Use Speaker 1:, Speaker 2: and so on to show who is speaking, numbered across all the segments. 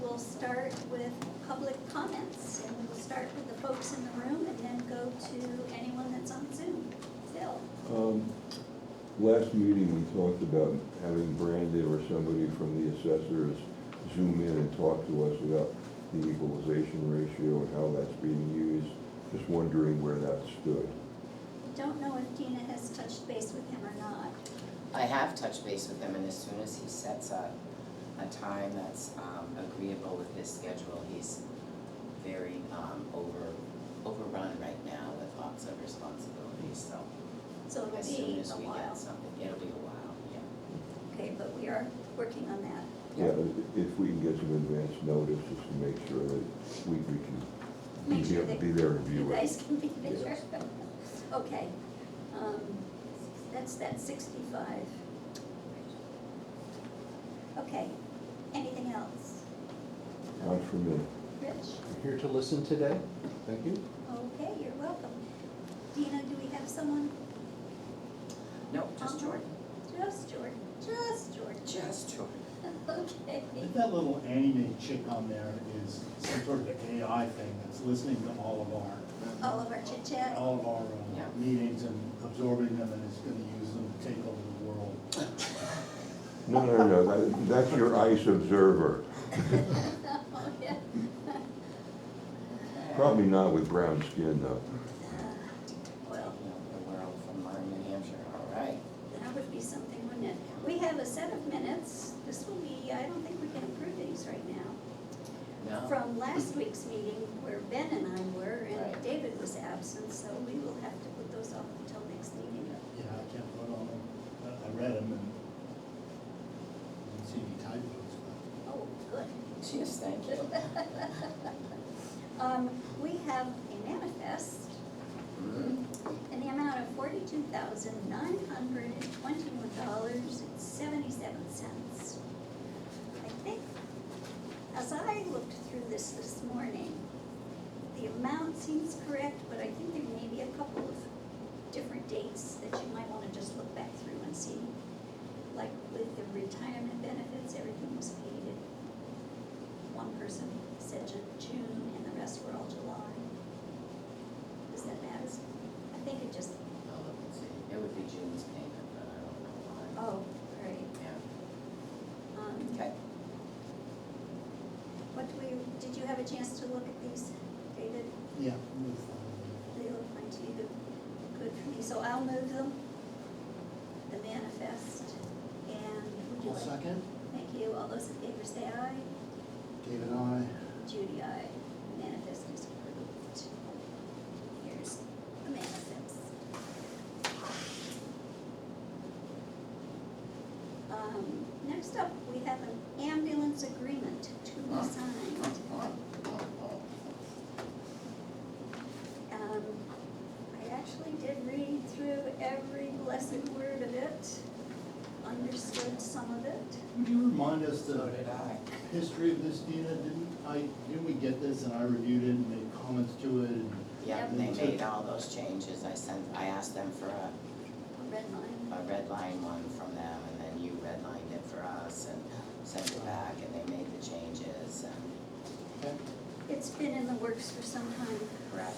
Speaker 1: will start with public comments, and we will start with the folks in the room and then go to anyone that's on Zoom. Phil?
Speaker 2: Um, Last meeting, we talked about having Brandon or somebody from the assessors zoom in and talk to us about the equalization ratio and how that's being used. Just wondering where that stood.
Speaker 1: Don't know if Dina has touched base with him or not.
Speaker 3: I have touched base with him, and as soon as he sets a, a time that's um, agreeable with his schedule, he's very um, over, overrun right now with lots of responsibilities, so
Speaker 1: So
Speaker 3: as
Speaker 1: it'll
Speaker 3: soon
Speaker 1: be
Speaker 3: as
Speaker 1: a
Speaker 3: we get
Speaker 1: while.
Speaker 3: something, it'll be a while, yeah.
Speaker 1: Okay, but we are working on that.
Speaker 2: Yeah, i- if we can get some advance notice, just to make sure that we, we can be
Speaker 1: Make sure
Speaker 2: there-
Speaker 1: that
Speaker 2: be there and
Speaker 1: You
Speaker 2: view it.
Speaker 1: guys can be there.
Speaker 2: Yes.
Speaker 1: Okay. um, That's that sixty-five. Okay, anything else?
Speaker 2: Not for me.
Speaker 1: Rich?
Speaker 4: Here to listen today, thank you.
Speaker 1: Okay, you're welcome. Dina, do we have someone?
Speaker 3: No, just
Speaker 1: Um,
Speaker 3: Jordan,
Speaker 1: Just Jordan, just Jordan.
Speaker 3: just Jordan.
Speaker 1: Okay.
Speaker 5: That little anime chick on there is some sort of AI thing that's listening to all of
Speaker 1: All of our chit
Speaker 5: our,
Speaker 1: chat.
Speaker 5: all of our
Speaker 3: Yeah.
Speaker 5: uh, meetings and absorbing them and is gonna use them to take over the world.
Speaker 2: No, no, no, that- that's your ICE observer.
Speaker 1: Oh, yeah. Uh,
Speaker 2: Probably not with brown skin, though.
Speaker 1: Well,
Speaker 3: Taking over the world from Lyme, New Hampshire, all right.
Speaker 1: that would be something, wouldn't it? We have a set of minutes. This will be, I don't think we can approve these right now.
Speaker 3: No,
Speaker 1: From last week's meeting where Ben and I were and
Speaker 3: Right.
Speaker 1: David was absent, so we will have to put those off until next meeting.
Speaker 5: Yeah, I can't vote on them, I- I read them and didn't see any typos, but
Speaker 1: Oh, good.
Speaker 3: cheers, thank you.
Speaker 1: Um, we have a manifest
Speaker 3: Mm,
Speaker 1: in the amount of forty-two thousand nine hundred and twenty-one dollars and seventy-seven cents. I think, as I looked through this this morning, the amount seems correct, but I think there may be a couple of different dates that you might wanna just look back through and see. Like with the retirement benefits, everything was paid at, one person said Ju- June and the rest were all July. Does that matter? I think it just,
Speaker 3: I'll look and see. It would be June's payment, but I don't know why.
Speaker 1: oh, right.
Speaker 3: Yeah,
Speaker 1: Um,
Speaker 3: okay.
Speaker 1: What do we, did you have a chance to look at these, David?
Speaker 5: yeah. it was fine.
Speaker 1: They look fine to you, good for me, so I'll move them, the manifest, and would you
Speaker 5: One
Speaker 1: like?
Speaker 5: second,
Speaker 1: Thank you, all those in favor say aye.
Speaker 5: David, I,
Speaker 1: Judy, aye. Manifest is approved. Here's the manifest. Um, next up, we have an ambulance agreement to be signed. Um, I actually did read through every blessed word of it, understood some of it.
Speaker 5: would you remind us the
Speaker 3: So did I.
Speaker 5: history of this, Dina? Didn't I, didn't we get this and I reviewed it and made comments to it and
Speaker 3: Yeah,
Speaker 1: Yep.
Speaker 3: they made all those changes, I sent, I asked them for a,
Speaker 1: Red line.
Speaker 3: a red line one from them, and then you redlined it for us and sent it back, and they made the changes and.
Speaker 1: It's been in the works for some time.
Speaker 3: Correct.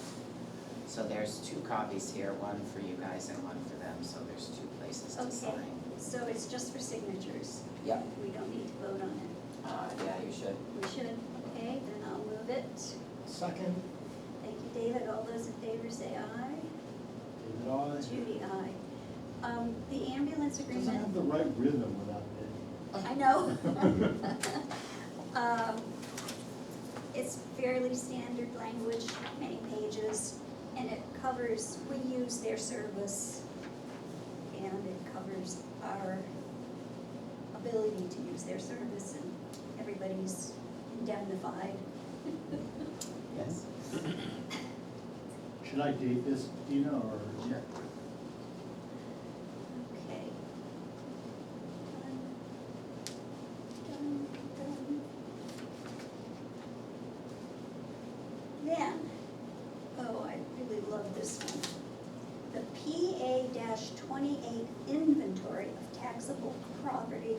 Speaker 3: So there's two copies here, one for you guys and one for them, so there's two places to
Speaker 1: Okay.
Speaker 3: sign.
Speaker 1: So it's just for signatures.
Speaker 3: Yep.
Speaker 1: We don't need to vote on it.
Speaker 3: Uh, yeah, you should.
Speaker 1: We should, okay, then I'll move it.
Speaker 5: Second,
Speaker 1: Thank you, David. All those in favor say aye.
Speaker 5: David, I.
Speaker 1: Judy, aye. Um, the ambulance
Speaker 5: Doesn't have
Speaker 1: agreement,
Speaker 5: the right rhythm without it.
Speaker 1: I know. Um, It's fairly standard language, not many pages, and it covers, we use their service, and it covers our ability to use their service, and everybody's indemnified.
Speaker 3: Yes.
Speaker 5: Should I date this, Dina, or?
Speaker 1: Okay. Done, done, done. Then, oh, I really love this one. The PA twenty-eight inventory of taxable property